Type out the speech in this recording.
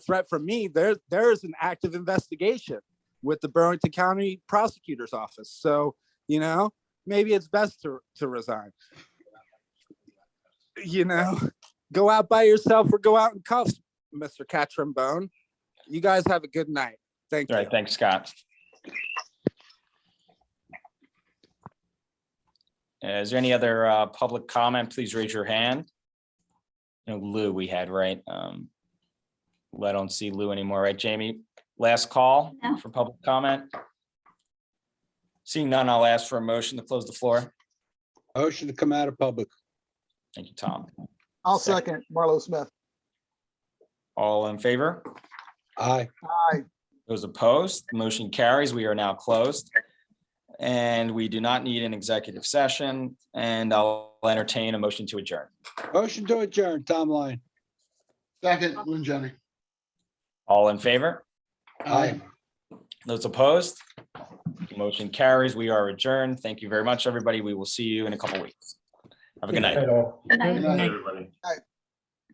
threat from me, there there is an active investigation with the Burlington County Prosecutor's Office. So, you know, maybe it's best to to resign. You know, go out by yourself or go out in cuffs, Mr. Catrimbone. You guys have a good night. Thank All you. right, thanks, Scott. Is there any other uh, public comment? Please raise your hand. No Lou we had, right? Um, well, I don't see Lou anymore, right, Jamie? Last call No. for public comment? Seeing none, I'll ask for a motion to close the floor. Motion to come out of public. Thank you, Tom. I'll Second. second Marlo Smith. All in favor? Aye. Those opposed, The motion carries. We are now closed. And we do not need an executive session and I'll entertain a motion to adjourn. Motion to adjourn, Tom Line. Second, Lynn Jenny. All in favor? Aye. Those opposed? The Motion carries. We are adjourned. Thank you very much, everybody. We will see you in a couple weeks. Have a good night. Good night. Good night. Aye. Aye.